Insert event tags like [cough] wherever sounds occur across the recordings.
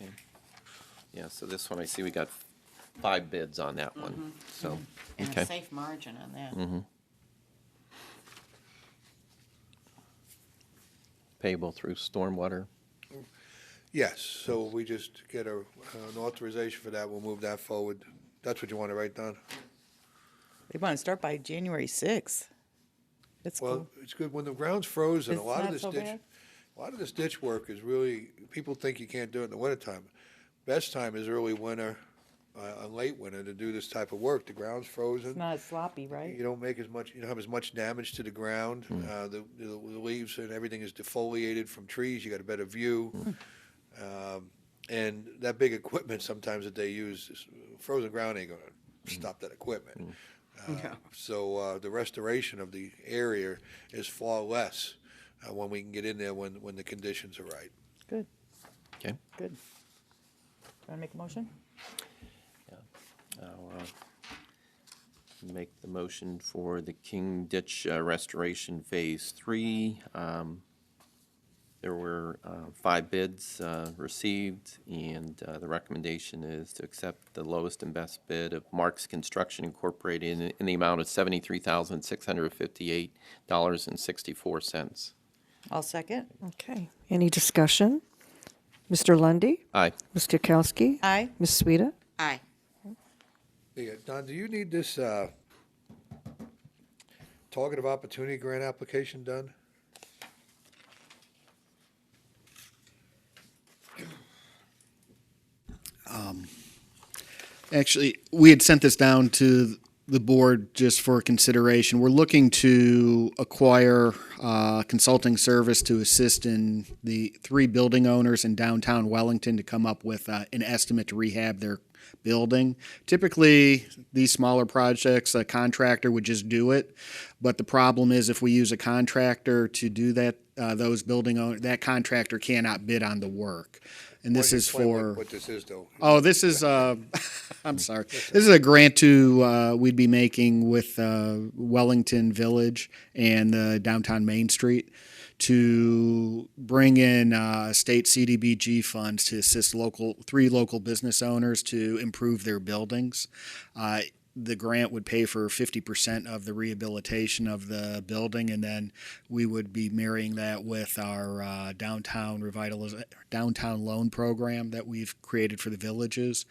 Okay. Yeah, so this one, I see we got five bids on that one, so, And a okay. safe margin on that. Payable through stormwater. Yes, so we just get a, an authorization for that, we'll move that forward. That's what you want to write down? They want to start by January 6th. It's Well, cool. it's good, when the ground's frozen, a It's lot of not this so ditch, bad. a lot of this ditch work is really, people think you can't do it in the wintertime. Best time is early winter, uh, uh, late winter to do this type of work, the ground's It's frozen. not as sloppy, right? You don't make as much, you don't have as much damage to the ground, uh, the, the leaves and everything is defoliated from trees, you got a better view. Um, and that big equipment sometimes that they use, is- frozen ground ain't gonna stop that equipment. Uh, So uh, the restoration of the area is far less uh, when we can get in there when, when the conditions are right. Good, Okay. good. Want to make a motion? I'll, uh, Make the motion for the King Ditch uh, Restoration Phase Three. Um, There were uh, five bids uh, received, and uh, the recommendation is to accept the lowest and best bid of Marks Construction Incorporated in- in the amount of seventy-three thousand, six hundred and fifty-eight dollars and sixty-four cents. I'll second. Okay, any discussion? Mr. Lundy, Aye. Ms. Kukowski? Aye. Ms. Sueda? Aye. Yeah, Don, do you need this uh, target of opportunity grant application done? Actually, we had sent this down to the board just for consideration. We're looking to acquire uh, consulting service to assist in the three building owners in downtown Wellington to come up with uh, an estimate to rehab their building. Typically, these smaller projects, a contractor would just do it. But the problem is if we use a contractor to do that, uh, those building owner, that contractor cannot bid on the work. And this Why don't you is explain what- for. What this is, though. Oh, this is uh, [laughs] I'm sorry. This is a grant to uh, we'd be making with uh, Wellington Village and uh, downtown Main Street to bring in uh, state CDBG funds to assist local three local business owners to improve their buildings. Uh, the grant would pay for 50% of the rehabilitation of the building, and then we would be marrying that with our uh, downtown revitaliz- downtown loan program that we've created for the villages,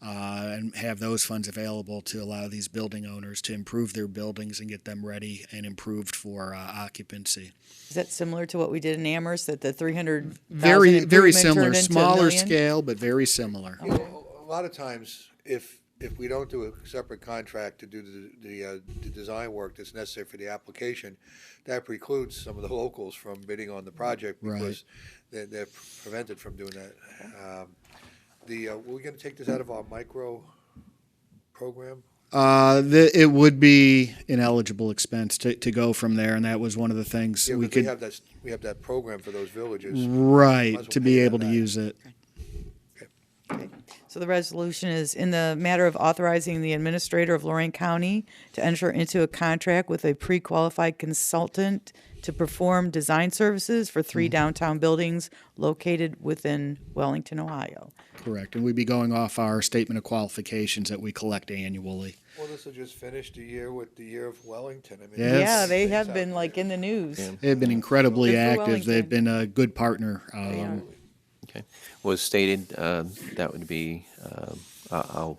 uh, and have those funds available to allow these building owners to improve their buildings and get them ready and improved for uh, occupancy. Is that similar to what we did in Amherst, that the 300,000 Very, very improvement similar, turned into a smaller million? scale, but very similar. You know, A a lot of times, if, if we don't do a separate contract to do the, the, uh, the design work that's necessary for the application, that precludes some of the locals from bidding on the project Right. because they're, they're prevented from doing that. Um, The, uh, we're gonna take this out of our micro program? Uh, the, it would be an eligible expense to, to go from there, and that was one of the things Yeah, we 'cause we could. have that, s- we have that program for those villages. Might as Right, well to pay be that able to back. use it. Okay. So the resolution is in the matter of authorizing the administrator of Lorraine County to enter into a contract with a pre-qualified consultant to perform design services for Mm-hmm. three downtown buildings located within Wellington, Ohio. Correct, and we'd be going off our statement of qualifications that we collect annually. Well, this will just finish the year with the year of Wellington. I mean, Yes. Yeah, they have been like in the news. They've been incredibly Good for active. They've Wellington. been a good partner. Um, Okay, was stated, uh, that would be, um, I- I'll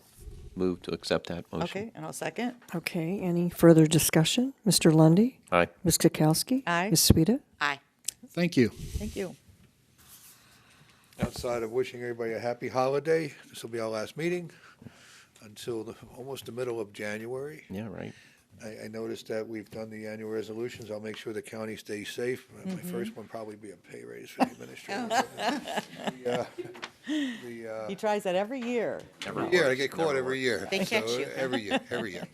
move to accept that motion. Okay, and I'll second. Okay, any further discussion? Mr. Lundy, Aye. Ms. Kukowski? Aye. Ms. Sueda? Aye. Thank you. Thank you. outside of wishing everybody a happy holiday, this will be our last meeting until the, almost the middle of January. Yeah, right. I, I noticed that we've done the annual resolutions. I'll make sure the county stays safe. My first one probably be a pay raise for the administrator. The, uh, The, uh, He tries that every year. yeah, I get caught every year. They catch so uh, you. Every year, every [laughs] year.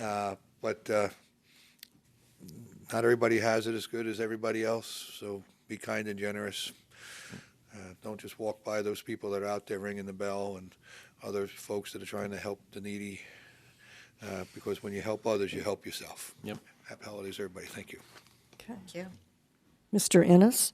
Uh, But uh, not everybody has it as good as everybody else, so be kind and generous. Uh, Don't just walk by those people that are out there ringing the bell and other folks that are trying to help the needy, uh, because when you help others, you help yourself. Yep. Happy holidays, everybody. Thank you. Thank you. Mr. Ennis?